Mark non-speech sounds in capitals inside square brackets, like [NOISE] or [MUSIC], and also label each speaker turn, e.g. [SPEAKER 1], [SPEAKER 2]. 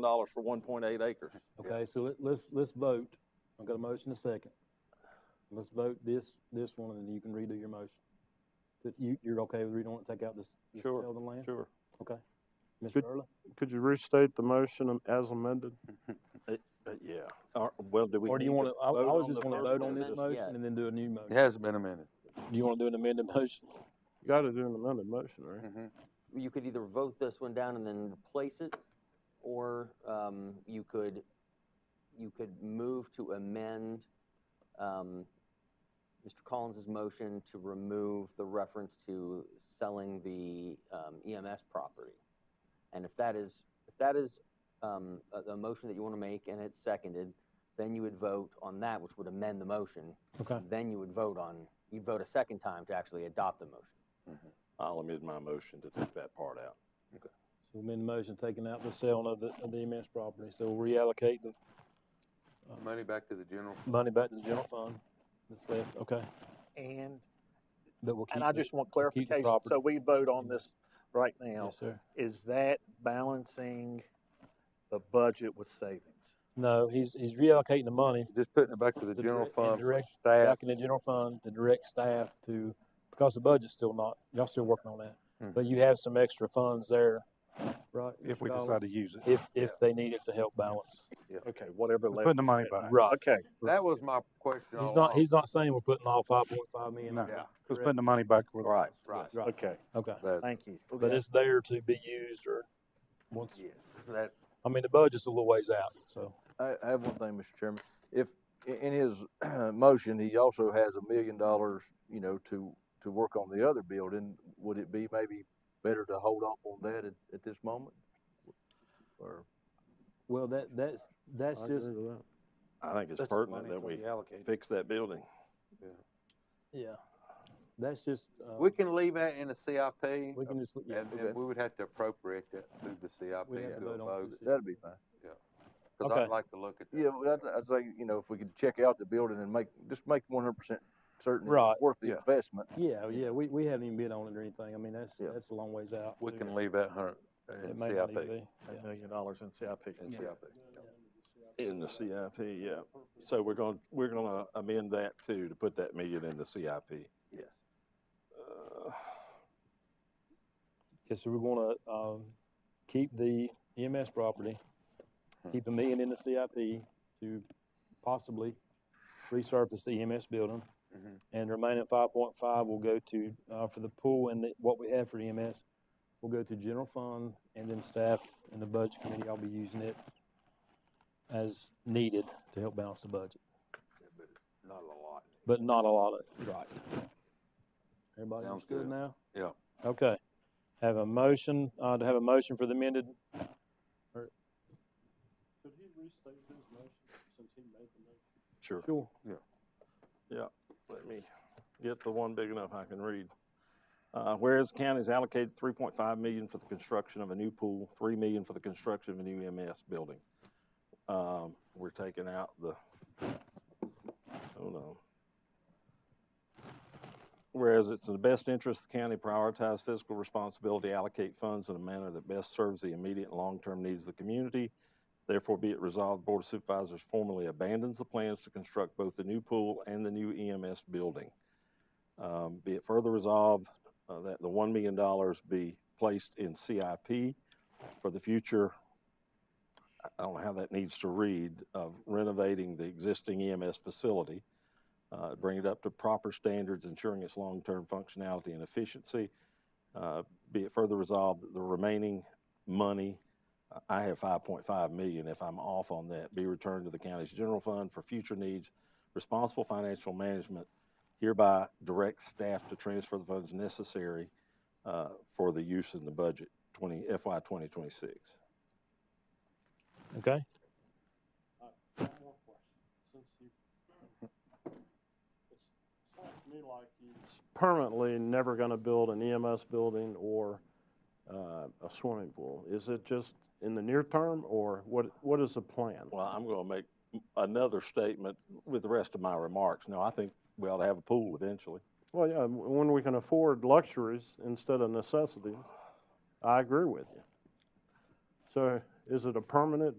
[SPEAKER 1] dollars for one point eight acres.
[SPEAKER 2] Okay, so let- let's, let's vote. I've got a motion and a second. Let's vote this, this one, and then you can redo your motion. That you, you're okay with redoing it, take out this, this
[SPEAKER 3] Sure,
[SPEAKER 2] sell the land?
[SPEAKER 3] Sure.
[SPEAKER 2] Okay. Mr.
[SPEAKER 4] Good.
[SPEAKER 2] Early,
[SPEAKER 4] Could you restate the motion um, as amended?
[SPEAKER 1] Uh, Yeah, Uh, well, do we?
[SPEAKER 2] or do you
[SPEAKER 1] need
[SPEAKER 2] want to, I, I
[SPEAKER 1] vote
[SPEAKER 2] was
[SPEAKER 1] on
[SPEAKER 2] just
[SPEAKER 1] the
[SPEAKER 2] want to
[SPEAKER 1] first
[SPEAKER 2] vote
[SPEAKER 1] one
[SPEAKER 2] on
[SPEAKER 1] or
[SPEAKER 2] this
[SPEAKER 1] just-
[SPEAKER 2] motion and then do a new
[SPEAKER 3] It
[SPEAKER 2] motion.
[SPEAKER 3] hasn't been amended.
[SPEAKER 2] Do you want to do an amended motion?
[SPEAKER 4] You gotta do an amended motion, right?
[SPEAKER 3] Mhm.
[SPEAKER 5] you could either vote this one down and then replace it, or um, you could, you could move to amend um, Mr. Collins's motion to remove the reference to selling the um, EMS property. And if that is, if that is um, a, a motion that you want to make and it's seconded, then you would vote on that, which would amend the motion.
[SPEAKER 2] Okay.
[SPEAKER 5] Then you would vote on, you'd vote a second time to actually adopt the motion.
[SPEAKER 1] I'll amend my motion to take that part out.
[SPEAKER 2] So amend the motion, taking out the sale of the, of the MS property, so we'll reallocate the Uh,
[SPEAKER 3] Money back to the general.
[SPEAKER 2] money back to the general fund that's left, okay?
[SPEAKER 6] And,
[SPEAKER 2] But we'll keep.
[SPEAKER 6] and I
[SPEAKER 2] the-
[SPEAKER 6] just want
[SPEAKER 2] we'll keep the
[SPEAKER 6] clarification,
[SPEAKER 2] property.
[SPEAKER 6] so we vote on this right now.
[SPEAKER 2] Yes, sir.
[SPEAKER 6] Is that balancing the budget with savings?
[SPEAKER 2] No, he's, he's reallocating the money
[SPEAKER 3] Just putting it back to the
[SPEAKER 2] The
[SPEAKER 3] general
[SPEAKER 2] direct- and
[SPEAKER 3] fund for
[SPEAKER 2] direct-
[SPEAKER 3] staff.
[SPEAKER 2] back in the general fund, the direct staff to, because the budget's still not, y'all still working on that.
[SPEAKER 3] Mm.
[SPEAKER 2] But you have some extra funds there, right?
[SPEAKER 7] if we
[SPEAKER 2] Mr. Collins?
[SPEAKER 7] decide to use it.
[SPEAKER 2] If, if they need it to help balance.
[SPEAKER 6] Okay, whatever
[SPEAKER 7] We're
[SPEAKER 6] level.
[SPEAKER 7] Putting the money back.
[SPEAKER 2] Right.
[SPEAKER 6] Okay,
[SPEAKER 3] That was my question all
[SPEAKER 2] He's not,
[SPEAKER 4] Oh.
[SPEAKER 3] along.
[SPEAKER 2] he's not saying we're putting all five point five million.
[SPEAKER 7] No.
[SPEAKER 3] Yeah,
[SPEAKER 7] Just putting the money back where
[SPEAKER 1] Right.
[SPEAKER 3] right.
[SPEAKER 2] Right.
[SPEAKER 6] okay,
[SPEAKER 2] Okay,
[SPEAKER 4] Oh,
[SPEAKER 3] That-
[SPEAKER 6] thank you.
[SPEAKER 2] but it's there to be used or once,
[SPEAKER 3] yes, that-
[SPEAKER 2] I mean, the budget's a little ways out, so.
[SPEAKER 8] I, I have one thing, Mr. Chairman. If, i- in his [CLEARS THROAT] motion, he also has a million dollars, you know, to, to work on the other building, would it be maybe better to hold off on that at, at this moment? Or,
[SPEAKER 2] Well, that, that's, that's
[SPEAKER 4] I agree with that.
[SPEAKER 1] I think it's
[SPEAKER 7] That's the
[SPEAKER 1] pertinent
[SPEAKER 7] money
[SPEAKER 1] that
[SPEAKER 7] to
[SPEAKER 1] we
[SPEAKER 7] be allocated.
[SPEAKER 1] fix that building.
[SPEAKER 2] yeah, that's just, uh,
[SPEAKER 3] We can leave that in the CIP.
[SPEAKER 2] we can just, yeah,
[SPEAKER 3] uh, And then
[SPEAKER 8] okay.
[SPEAKER 3] we would have to appropriate that through the
[SPEAKER 2] we have
[SPEAKER 3] CIP
[SPEAKER 2] to
[SPEAKER 3] to a
[SPEAKER 2] vote on.
[SPEAKER 3] vote,
[SPEAKER 2] this.
[SPEAKER 8] that'd be fine.
[SPEAKER 3] because
[SPEAKER 2] Okay.
[SPEAKER 3] I'd like to look at that.
[SPEAKER 8] Yeah, well, I'd, I'd say, you know, if we could check out the building and make, just make one hundred percent certain it's
[SPEAKER 2] Right.
[SPEAKER 8] worth
[SPEAKER 3] Yeah.
[SPEAKER 8] the investment.
[SPEAKER 2] Yeah, yeah, we, we haven't even bid on it or anything. I mean, that's,
[SPEAKER 8] Yeah.
[SPEAKER 2] that's a long ways out.
[SPEAKER 3] We
[SPEAKER 2] too.
[SPEAKER 3] can leave that hundred
[SPEAKER 2] It
[SPEAKER 3] in
[SPEAKER 2] may not even
[SPEAKER 3] CIP.
[SPEAKER 2] be.
[SPEAKER 6] A million dollars in CIP.
[SPEAKER 3] In CIP.
[SPEAKER 1] In the CIP, yeah. So we're going, we're going to amend that too, to put that million in the CIP.
[SPEAKER 3] Yes.
[SPEAKER 1] Uh,
[SPEAKER 2] Okay, so we're gonna, um, keep the EMS property,
[SPEAKER 3] Hmm.
[SPEAKER 2] keep a million in the CIP to possibly resurface the EMS building.
[SPEAKER 8] Mm-hmm.
[SPEAKER 3] Mhm.
[SPEAKER 2] And the remaining five point five will go to, uh, for the pool and the, what we have for EMS, will go to general fund and then staff and the budget committee, I'll be using it as needed to help balance the budget.
[SPEAKER 3] Yeah, but Not a lot.
[SPEAKER 2] but not a lot of, right. Everybody
[SPEAKER 3] Sounds
[SPEAKER 2] understood
[SPEAKER 3] good.
[SPEAKER 2] now?
[SPEAKER 3] Yeah.
[SPEAKER 2] Okay. Have a motion, uh, to have a motion for the amended,
[SPEAKER 4] Could he restate his motion since he made the motion?
[SPEAKER 1] Sure.
[SPEAKER 2] sure,
[SPEAKER 1] Let me get the one big enough I can read. Uh, whereas the county's allocated three point five million for the construction of a new pool, three million for the construction of a new EMS building. Um, we're taking out the, hold on. Whereas it's in the best interest of the county prioritize fiscal responsibility, allocate funds in a manner that best serves the immediate and long-term needs of the community. Therefore, be it resolved, Board of Supervisors formally abandons the plans to construct both the new pool and the new EMS building. Um, Be it further resolved uh, that the $1 million be placed in CIP for the future, I- I don't know how that needs to read, of renovating the existing EMS facility, uh, bring it up to proper standards, ensuring its long-term functionality and efficiency. Uh, Be it further resolved that the remaining money I have five point five million, if I'm off on that, be returned to the county's general fund for future needs. Responsible financial management hereby direct staff to transfer the funds necessary, uh, for the use in the budget twenty, FY twenty twenty-six.
[SPEAKER 2] okay?
[SPEAKER 4] One more question, since you. It sounds to me like you. Permanently never gonna build an EMS building or, uh, a swimming pool. Is it just in the near term or what, what is the plan?
[SPEAKER 1] Well, I'm gonna make another statement with the rest of my remarks. No, I think we ought to have a pool eventually.
[SPEAKER 4] Well, yeah, w- when we can afford luxuries instead of necessities, I agree with you. So Is it a permanent